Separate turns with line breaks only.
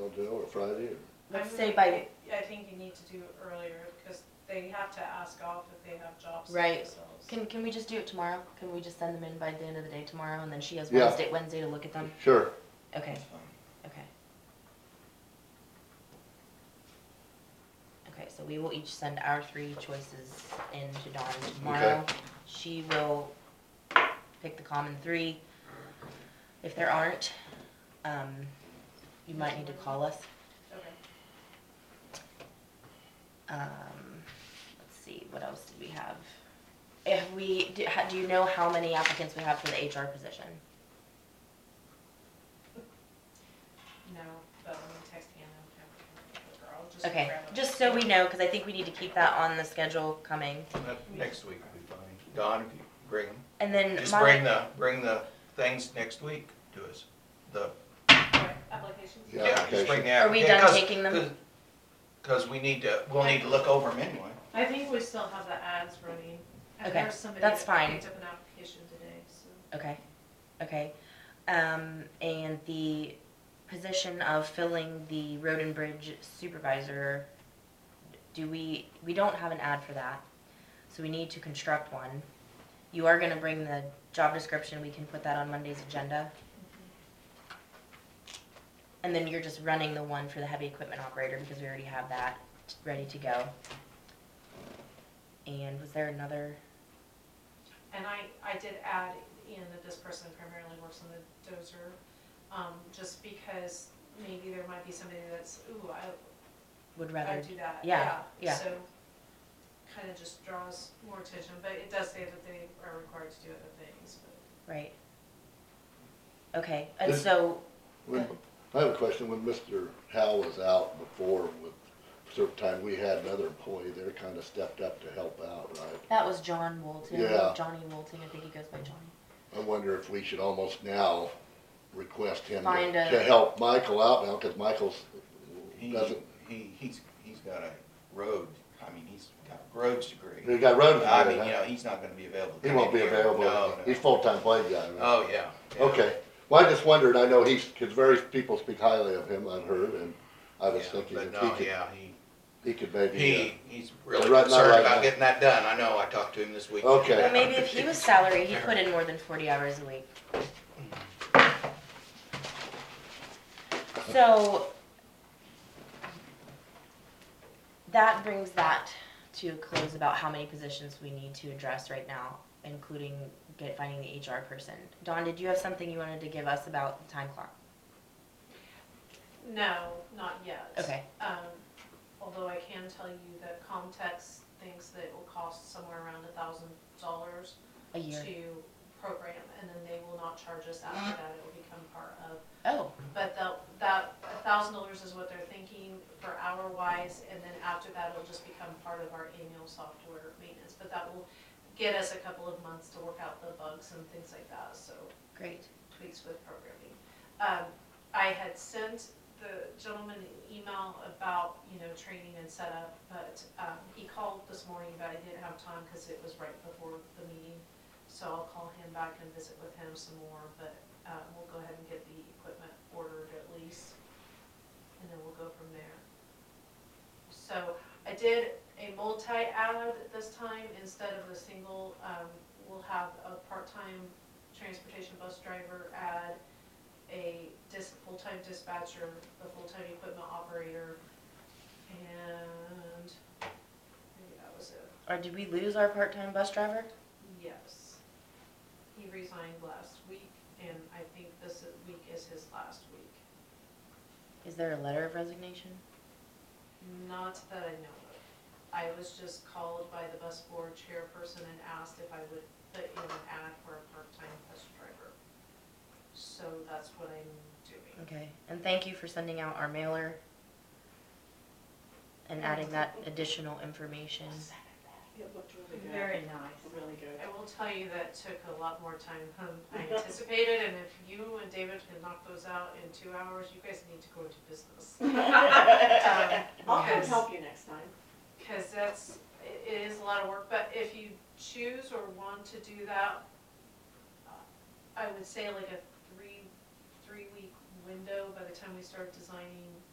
what, Friday or?
Let's
I
say
would-
by-
I think you need to do it earlier, because they have to ask off if they have jobs.
Right.
themselves.
Can, can we just do it tomorrow? Can we just send them in by the end of the day tomorrow and then she has
Yeah.
Wednesday, Wednesday to look at them?
Sure.
Okay, okay. Okay, so we will each send our three choices in to Dawn tomorrow. She will pick the common three. If there aren't, um, you might need to call us.
Okay.
Um, let's see, what else did we have? If we, do, ha- do you know how many applicants we have for the HR position?
No, but let me text Hannah. and have her come over. I'll just
Okay,
grab a-
just so we know, cause I think we need to keep that on the schedule coming.
That- Next week will be fine. Don, if you bring 'em.
And then
just bring
my,
the, bring the things next week to us. The,
Right, Applications?
Yeah,
yeah, just bring the
Are we done
applica- 'cause-
taking them?
'cause- Cause we need to, we'll need to look over them anyway.
I think we still have the ads running. And
Okay,
there's somebody
that's
that
fine.
Picked up an application today, so.
okay, okay. Um, and the position of filling the road and bridge supervisor, do we, we don't have an ad for that, so we need to construct one. You are gonna bring the job description, we can put that on Monday's agenda. And then you're just running the one for the heavy equipment operator because we already have that t- ready to go. And was there another,
And I, I did add in that this person primarily works on the dozer, um, just because maybe there might be somebody that's, ooh, I,
would
I
rather,
do that, yeah.
yeah, yeah.
So, kinda just draws more attention, but it does say that they are required to do other things, but.
right? Okay, and
This-
so,
When, I have a question. When Mr. Howe was out before with certain time, we had another employee there kind of stepped up to help out, right?
that was John Woolton,
Yeah.
Johnny Woolton, I think he goes by Johnny.
I wonder if we should almost now request him to
Find a-
to help Michael out now, cause Michael's
He,
doesn't,
he, he's, he's got a road, I mean, he's got a roads
he
degree.
got road.
I
design,
mean, you
huh?
know, he's not gonna be available. to
He
come
won't
in
be
here.
available.
No, no.
He's full-time blade guy, right?
Oh, yeah. yeah.
Okay, well, I just wondered, I know he's, cause various people speak highly of him, I've heard, and I was
Yeah,
thinking
But
if he
no,
could,
yeah, he.
he could maybe, uh,
He, he's really
Right, not right
concerned
now.
about getting that done, I know, I talked to him this week.
Okay.
Well, maybe if he was salary, he'd put in more than forty hours a week. So. That brings that to a close about how many positions we need to address right now, including get, finding the HR person. Dawn, did you have something you wanted to give us about the time clock?
No, not yet.
Okay,
Um, although I can tell you that Comtex thinks that it will cost somewhere around a thousand dollars
a year.
to program, and then they will not charge us after that, it will become part of.
Oh,
But the, that, a thousand dollars is what they're thinking for hour wise, and then after that, it'll just become part of our annual software maintenance. But that will get us a couple of months to work out the bugs and things like that, so
great.
tweaks with programming. Um, I had sent the gentleman an email about, you know, training and setup, but, um, he called this morning, but I didn't have time because it was right before the meeting. So I'll call him back and visit with him some more, but, uh, we'll go ahead and get the equipment ordered at least. And then we'll go from there. So I did a multi-ad this time instead of a single, um, we'll have a part-time transportation bus driver, add a dis, full-time dispatcher, a full-time equipment operator, and maybe that was it.
Or did we lose our part-time bus driver?
Yes. He resigned last week, and I think this i- week is his last week.
Is there a letter of resignation?
Not that I know of. I was just called by the bus board chairperson and asked if I would put in an ad for a part-time bus driver. So that's what I'm doing.
Okay, and thank you for sending out our mailer and adding that additional information.
It looked really good.
Very nice.
Really good.
I will tell you that took a lot more time than I anticipated, and if you and David can knock those out in two hours, you guys need to go into business.
I'll come
Um, Yes.
help you next time.
Because that's, it- it is a lot of work, but if you choose or want to do that, uh, I would say like a three, three-week window by the time we start designing